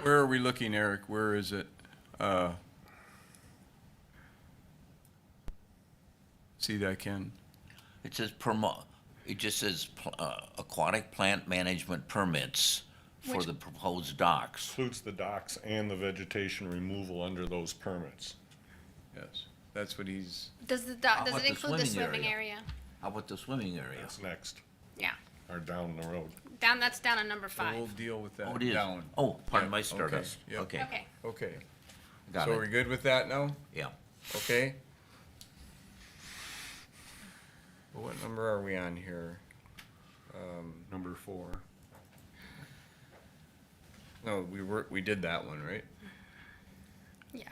Where are we looking, Eric? Where is it? Uh, See that, Ken? It says promo, it just says pl- uh, aquatic plant management permits for Which- the proposed docks. Includes the docks and the vegetation removal under those permits. Yes, that's what he's, Does the, do- How does about it the include the swimming swimming area? How about the swimming area? Uh, That's next, Yeah, or down the road. down, that's down on number we'll five. deal with Oh, that it is. down. Oh, pardon Yeah, my okay, startup. yeah. Okay, Okay, Okay, got so are we it, good with that now? yeah. Okay? Well, What number are we on here? Um, Number four. No, we were, we did that one, right? yeah,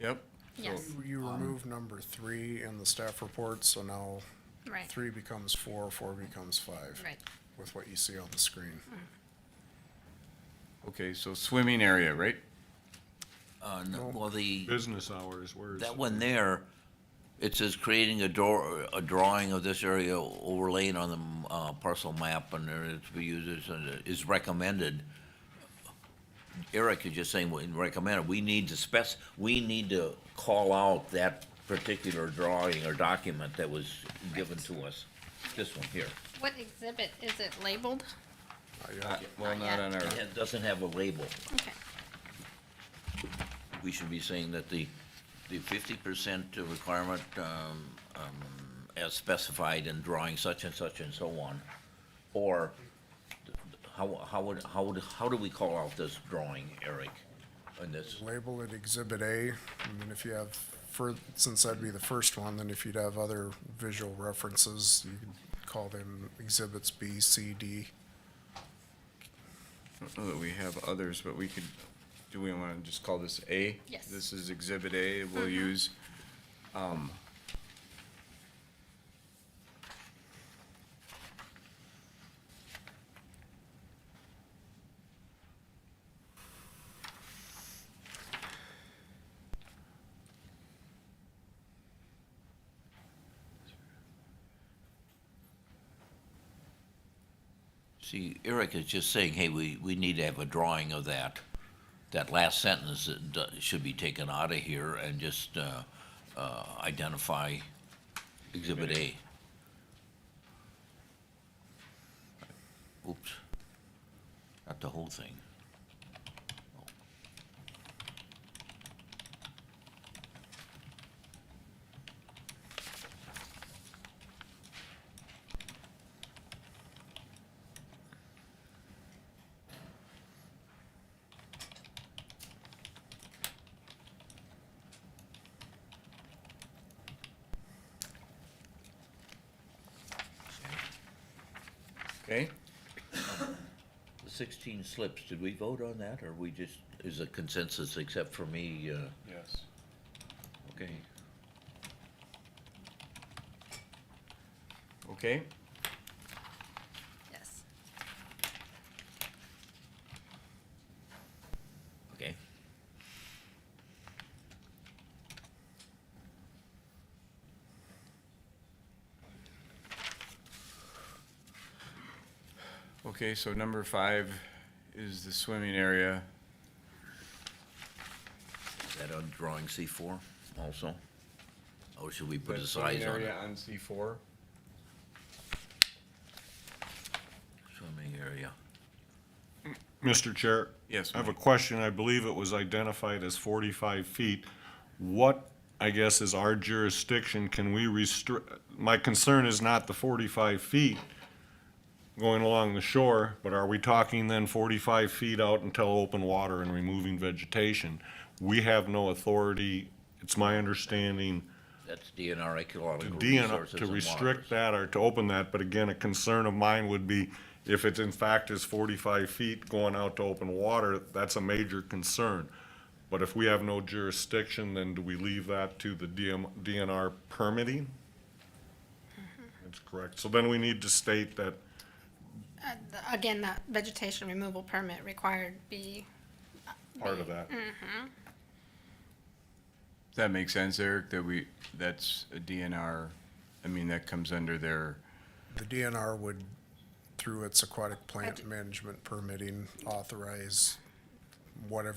Yep. So- yes, You remove number three in the staff report, so now right, three becomes four, four becomes five. right. Mm-hmm. With what you see on the screen. Okay, so swimming area, right? Uh, no, well, the, Business hours, where is? that one there, it says creating a door, a drawing of this area overlaid on the uh, parcel map and there it's be used as, uh, is recommended. Eric is just saying, we recommend it, we need to spec, we need to call out that particular drawing or document that was given to us. This one here. What exhibit is it labeled? Well, not on our, It doesn't have a label. Okay, we should be saying that the, the fifty percent requirement, um, um, as specified in drawing such and such and so on, or how, how would, how would, how do we call out this drawing, Eric, in this? Label it Exhibit A, and then if you have, fur since that'd be the first one, then if you'd have other visual references, you could call them Exhibits B, C, D. I don't know that we have others, but we could, do we want to just call this A? Yes. This is Exhibit A, we'll use, See, Eric is just saying, hey, we, we need to have a drawing of that. That last sentence that do- should be taken out of here and just, uh, uh, identify Exhibit A. Oops. Not the whole thing. okay? The sixteen slips, did we vote on that or we just, is a consensus except for me, uh, Yes. okay? Okay, yes. Okay. okay, so number five is the swimming area. Is that on drawing C four also? Or should we put That a swimming size on area it? On C four, Swimming area. Mr. Chair. Yes, I have a ma'am. question. I believe it was identified as forty-five feet. What, I guess, is our jurisdiction? Can we restrict, my concern is not the forty-five feet going along the shore, but are we talking then forty-five feet out until open water and removing vegetation? We have no authority, it's my understanding, That's DNR ecological DNR, resources uh, to and restrict waters. that or to open that, but again, a concern of mine would be if it in fact is forty-five feet going out to open water, that's a major concern. But if we have no jurisdiction, then do we leave that to the DM, DNR permitting? Mm-hmm. That's correct. So then we need to state that, Uh, the- Again, that vegetation removal permit required be, part of Mm-hmm. that. Does that make sense, Eric, that we, that's a DNR, I mean, that comes under their, The DNR would, through its aquatic d- plant management permitting, authorize whatever